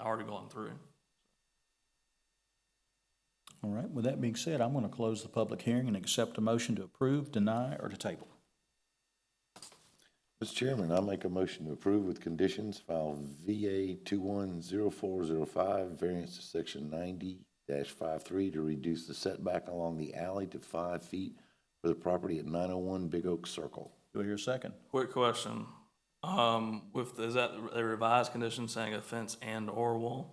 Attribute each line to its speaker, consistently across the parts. Speaker 1: already gone through.
Speaker 2: All right, with that being said, I'm going to close the public hearing and accept a motion to approve, deny, or to table.
Speaker 3: Mr. Chairman, I make a motion to approve with conditions file VA 210405, variance to section 90-53 to reduce the setback along the alley to five feet for the property at 901 Big Oak Circle.
Speaker 2: Do I hear a second?
Speaker 1: Quick question, um, with, is that the revised condition saying a fence and or wall?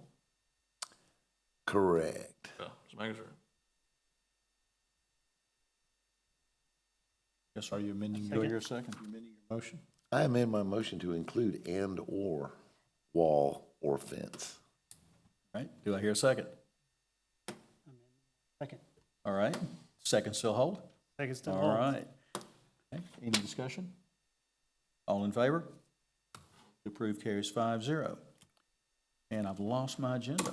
Speaker 3: Correct.
Speaker 1: Yeah, just making sure.
Speaker 2: Yes, are you amending? Do I hear a second? You Amending your motion?
Speaker 3: I amend my motion to include and/or wall or fence.
Speaker 2: All right, do I hear a second?
Speaker 4: Second.
Speaker 2: All right, second still hold?
Speaker 4: Second still
Speaker 2: All
Speaker 4: holds.
Speaker 2: right. Okay, Any discussion? All in favor? To Approve carries five zero. And I've lost my agenda.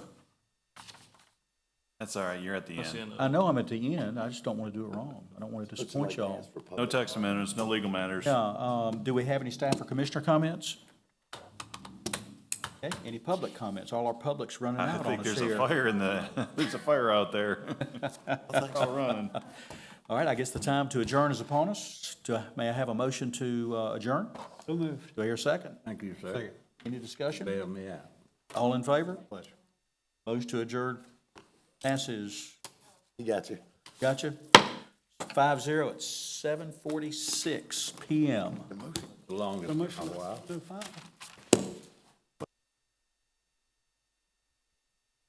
Speaker 5: That's all right, you're at the
Speaker 1: That's the
Speaker 5: end.
Speaker 1: end of
Speaker 2: I
Speaker 1: it.
Speaker 2: know I'm at the end, I just don't want to do it wrong. I don't want to disappoint y'all.
Speaker 5: No text amendments, no legal matters.
Speaker 2: Yeah, um, do we have any staff or commissioner comments? Okay, any public comments? All our public's running
Speaker 5: I
Speaker 2: out on
Speaker 5: think
Speaker 2: us
Speaker 5: there's a
Speaker 2: here.
Speaker 5: fire in the, there's a fire out there. It's all running.
Speaker 2: All right, I guess the time to adjourn is upon us. Do, I- may I have a motion to uh, adjourn?
Speaker 4: So moved.
Speaker 2: Do I hear a second?
Speaker 6: Thank you, sir.
Speaker 2: Any discussion?
Speaker 6: Bail me out.
Speaker 2: All in favor?
Speaker 6: Pleasure.
Speaker 2: Motion to adjourn passes.
Speaker 3: You got you.
Speaker 2: Gotcha. Five zero at seven forty-six PM.
Speaker 6: Longest in a while.
Speaker 4: So five.